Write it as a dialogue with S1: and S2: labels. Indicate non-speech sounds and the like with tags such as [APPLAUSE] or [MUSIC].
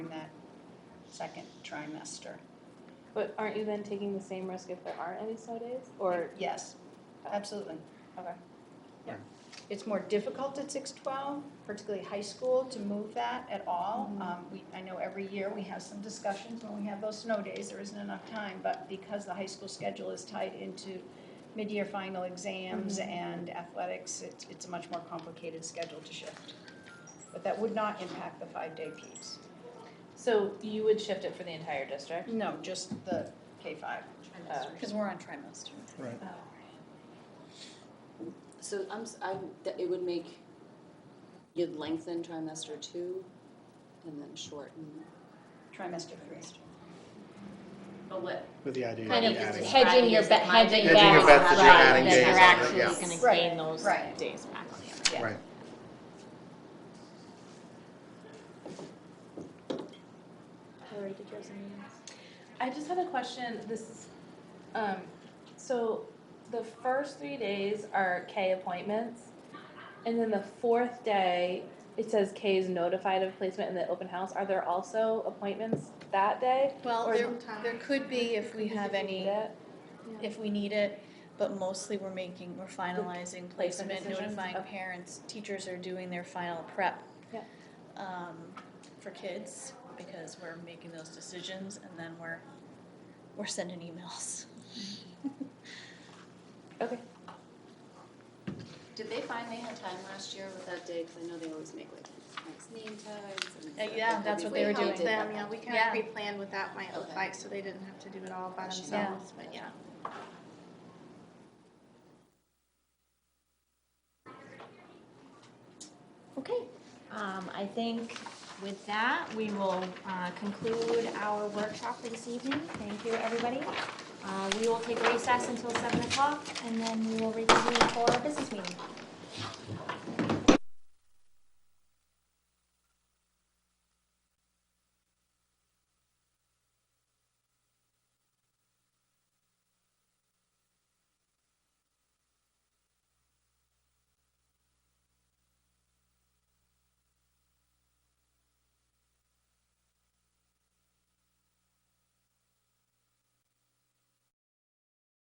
S1: second trimester.
S2: But aren't you then taking the same risk if there aren't any snow days? Or,
S1: Yes, absolutely.
S2: okay.
S1: It's more difficult at six twelve, particularly high school, to move that at all.
S3: Mm-hmm.
S1: Um, we, I know every year we have some discussions when we have those snow days, there isn't enough time, but because the high school schedule is tied into mid-year final exams
S3: Mm-hmm.
S1: and athletics, it's, it's a much more complicated schedule to shift. But that would not impact the five-day piece.
S2: So you would shift it for the entire district?
S1: No, just the K five.
S2: Oh.
S3: Because we're on trimester.
S4: Right.
S5: So I'm, s- I'm, that it would make, you'd lengthen trimester two and then shorten.
S1: Trimester three.
S6: But what,
S4: With the idea
S3: Kind
S4: of
S3: of
S4: adding.
S3: hedging your,
S6: Hedging your
S3: bet-
S6: bet-
S3: hedging
S4: hedging your bets
S3: bets,
S4: as you're
S3: right,
S4: adding
S3: then
S4: days
S3: you're
S4: on it,
S3: actually
S4: yes.
S3: gonna
S1: Right,
S3: gain those
S1: right.
S3: days back.
S1: Yeah.
S4: Right.
S3: Hillary, did you have something else?
S2: I just had a question, this is, um, so the first three days are K appointments. And then the fourth day, it says K is notified of placement in the open house. Are there also appointments that day?
S3: Well,
S2: Or-
S3: there, there could be if we have any, if we need it, but mostly we're making, we're finalizing placement,
S2: decisions?
S3: notifying
S2: Okay.
S3: parents. Teachers are doing their final prep.
S2: Yep.
S3: Um, for kids, because we're making those decisions and then we're, we're sending emails.
S2: Okay,
S5: Did they find they had time last year with that day? Cause I know they always make like nice name tags and.
S3: [LAUGHS] Uh, yeah,
S5: like,
S3: that's
S5: we-
S3: what they were
S5: we
S3: doing.
S5: did
S7: them,
S5: that one.
S7: yeah, we kind
S3: Yeah.
S7: of pre-planned what that might look
S5: Okay.
S7: like, so they didn't have to do it all by
S5: Gotcha.
S7: themselves, but yeah.
S8: Okay, um, I think with that, we will, uh, conclude our workshop for this evening. Thank you, everybody. Uh, we will take recess until seven o'clock, and then we will reconvene for